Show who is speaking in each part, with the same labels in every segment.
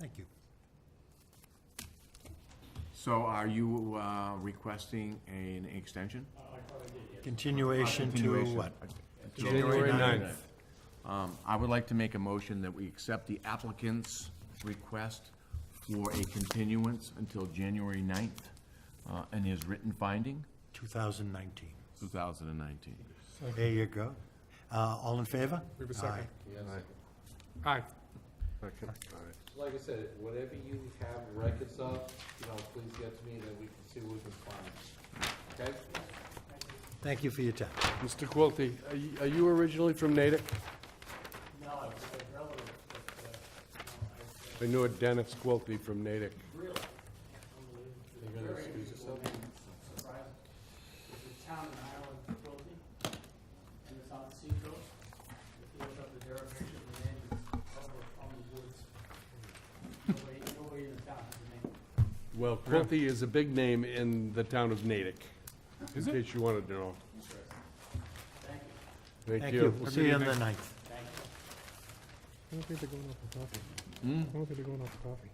Speaker 1: Thank you.
Speaker 2: So are you uh, requesting an extension?
Speaker 1: Continuation to
Speaker 2: Continuation.
Speaker 1: what?
Speaker 2: January
Speaker 3: ninth.
Speaker 2: Um, I would like to make a motion that we accept the applicant's request for a continuance until January 9th uh, and his written finding,
Speaker 1: 2019.
Speaker 2: 2019.
Speaker 1: There you go. Uh, All in favor?
Speaker 3: We have a second. Aye.
Speaker 4: Like I said, whatever you have records of, you know, please get to me, then we can see what we can find, okay?
Speaker 1: Aye. Thank you for your time.
Speaker 3: Mr. Quilty, are you- are you originally from Natick?
Speaker 5: No, I was a relative, but, uh,
Speaker 3: I knew a Dennis Quilty from Natick.
Speaker 5: no, I, really, unbelievable. Very unusual and surprising. It's a town in Ireland, Quilty, and it's on the seacoast. If you look up the derivation of the name, it's over on the woods. Nobody, nobody in the town has a name.
Speaker 3: Well, Quilty is a big name in the town of Natick, in case you wanted to know.
Speaker 5: Thank you.
Speaker 3: Thank you.
Speaker 1: We'll see you on the 9th.
Speaker 6: I don't think they're going out for coffee. I don't think they're going out for coffee.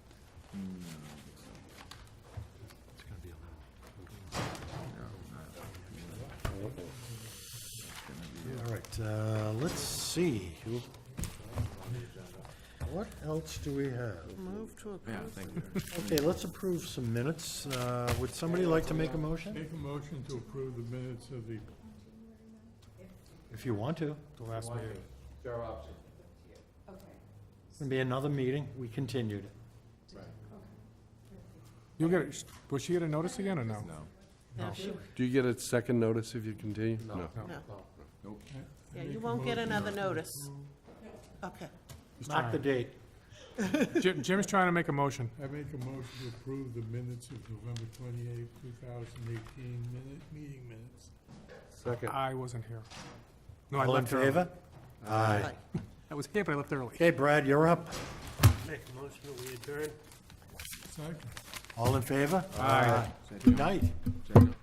Speaker 1: All right, uh, let's see. What else do we have?
Speaker 2: Yeah, thank you.
Speaker 1: Okay, let's approve some minutes. Uh, Would somebody like to make a motion?
Speaker 6: Make a motion to approve the minutes of the
Speaker 1: If you want to.
Speaker 3: The last meeting.
Speaker 4: Fair option.
Speaker 7: Okay,
Speaker 1: It's going to be another meeting. We continued it.
Speaker 6: You'll get, it. will she get a notice again or no?
Speaker 2: No.
Speaker 8: No, she-
Speaker 3: Do you get a second notice if you continue? No.
Speaker 8: no.
Speaker 2: Nope.
Speaker 8: Yeah, you won't get another notice. Okay.
Speaker 1: Mark the date.
Speaker 6: Jim, Jim's trying to make a motion.
Speaker 9: I make a motion to approve the minutes of November twenty-eighth, two thousand eighteen, minute, meeting minutes.
Speaker 3: Second.
Speaker 6: I wasn't here. No, I
Speaker 1: All in
Speaker 6: left early.
Speaker 1: favor? Aye.
Speaker 6: I was here, but I left early.
Speaker 1: Okay, Brad, you're up.
Speaker 5: Make a motion that we adjourn.
Speaker 9: Second.
Speaker 1: All in favor? Aye. Good night.
Speaker 2: Second.